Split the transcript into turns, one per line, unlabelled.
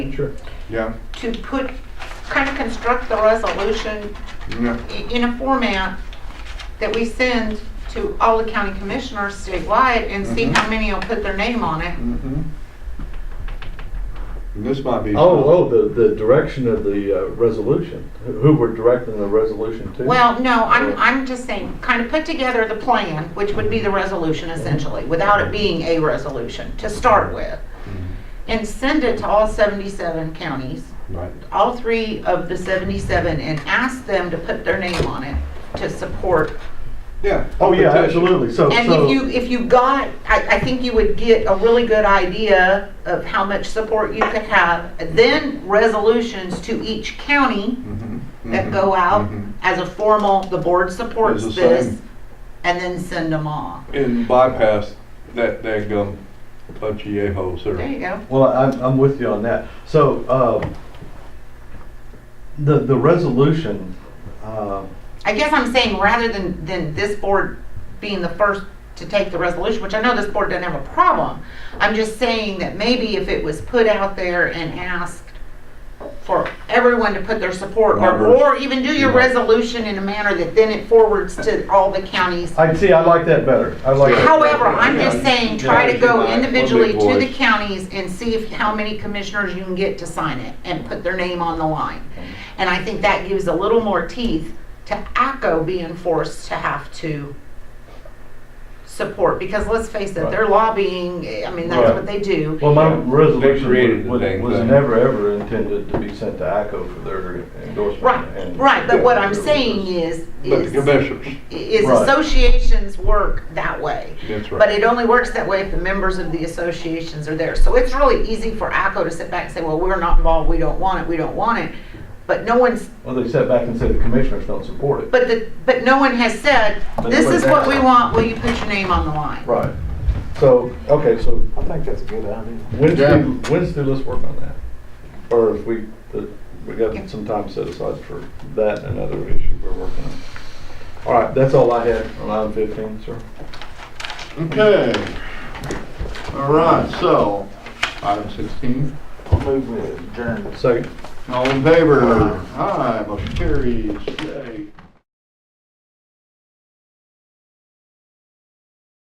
Sure.
Yeah,
to put, kind of construct the resolution
yeah,
i- in a format that we send to all the county commissioners statewide and see
Mhm.
how many will put their name on it.
mm-hmm. This might be.
Oh, oh, the, the direction of the uh, resolution, Who- who we're directing the resolution to? Oh.
Well, no, I'm, I'm just saying, kind of put together the plan, which would be the resolution essentially, without it being a resolution to start with. And send it to all 77 counties,
Mm-hmm. Right,
all three of the 77, and ask them to put their name on it to support
yeah.
Oh, yeah,
Petition.
absolutely, so,
And
so-
if you, if you got, I, I think you would get a really good idea of how much support you could have. Then resolutions to each county
Mhm,
that
mhm,
go out
mhm.
as a formal, the board supports
Is the
this,
same.
and then send them off.
And bypass that, that gum, bunch of yay-holes
There
there.
you go.
well, I'm, I'm with you on that. So, um, the, the resolution, um,
I guess I'm saying rather than, than this board being the first to take the resolution, which I know this board doesn't have a problem, I'm just saying that maybe if it was put out there and asked for everyone to put their support or,
Numbers.
or even do your
Yeah.
resolution in a manner that then it forwards to all the counties.
I, see, I like that better, I like that.
However, I'm just
Yeah.
saying, try to go
Yeah,
individually to the
voice.
counties and see if, how many commissioners you can get to sign it and put their name on the line. And I think that gives a little more teeth to ACO being forced to have to support, because let's face it, they're lobbying, I mean, that's
Right.
what they do.
Well, my
Yeah. They
resolution
created
was,
the dang
was
thing.
never, ever intended to be sent to ACO for their endorsement.
Right,
and-
right, but what I'm
Yeah.
saying is,
But the
is,
commissioners,
is
Right.
associations work that way.
that's
But
right.
it only works that way if the members of the associations are there. So it's really easy for ACO to sit back and say, well, we're not involved, we don't want it, we don't want it. But no one's,
Well, they sat back and said the commissioners don't support it.
but the, but no one has said, this is what we want, will you put your name on the line?
Right. So, okay, so
I think that's a good idea.
Wednesday,
Yeah.
Wednesday, let's work on that. Or if we, the- we got some time set aside for that and another issue we're working on. All right, that's all I had on item fifteen, sir.
Okay. All right, so, item 16,
I'll move with adjourned.
Second.
all in favor? Aye, motion carries. Yay.